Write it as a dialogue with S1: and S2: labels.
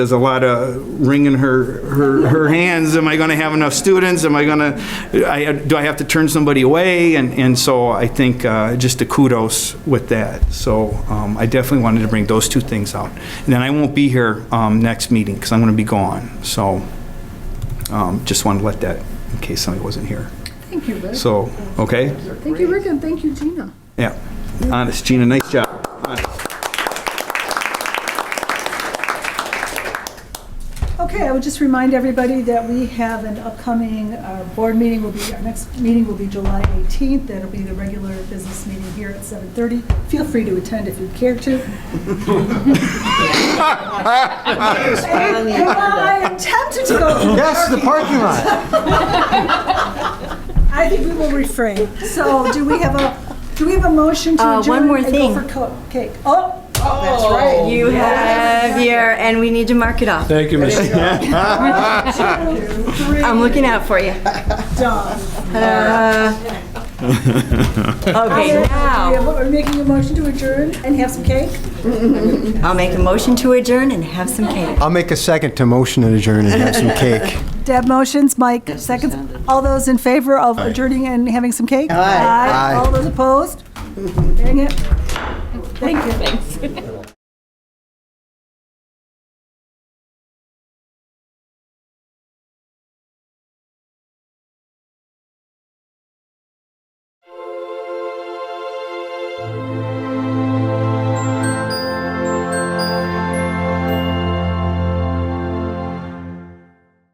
S1: There's a lot of wringing her, her, her hands. Am I going to have enough students? Am I going to, I, do I have to turn somebody away? And, and so I think uh, just a kudos with that. So um, I definitely wanted to bring those two things out. And then I won't be here um, next meeting because I'm going to be gone. So um, just wanted to let that, in case somebody wasn't here.
S2: Thank you, Rick.
S1: So, okay?
S2: Thank you, Rick, and thank you, Gina.
S1: Yeah. Honest, Gina, nice job.
S2: Okay, I would just remind everybody that we have an upcoming uh, board meeting, will be, our next meeting will be July 18th. That'll be the regular business meeting here at 7:30. Feel free to attend if you care to. And and while I am tempted to go to
S3: Yes, the parking lot.
S2: I think we will refrain. So do we have a, do we have a motion to
S4: Uh,
S2: adjourn?
S4: one more thing.
S2: And go for co- cake. Oh,
S5: That's right.
S4: You have your, and we need to mark it off.
S3: Thank you, Mr.
S2: three,
S4: I'm looking out for you.
S2: done.
S4: Uh, Okay,
S2: We have-
S4: now,
S2: We're making a motion to adjourn and have some cake?
S4: I'll make a motion to adjourn and have some cake.
S3: I'll make a second to motion and adjourn and have some cake.
S2: Deb motions, Mike seconds. All those in favor of adjourning and having some cake? Aye.
S3: Aye.
S2: All those opposed? Dang it. Thank you.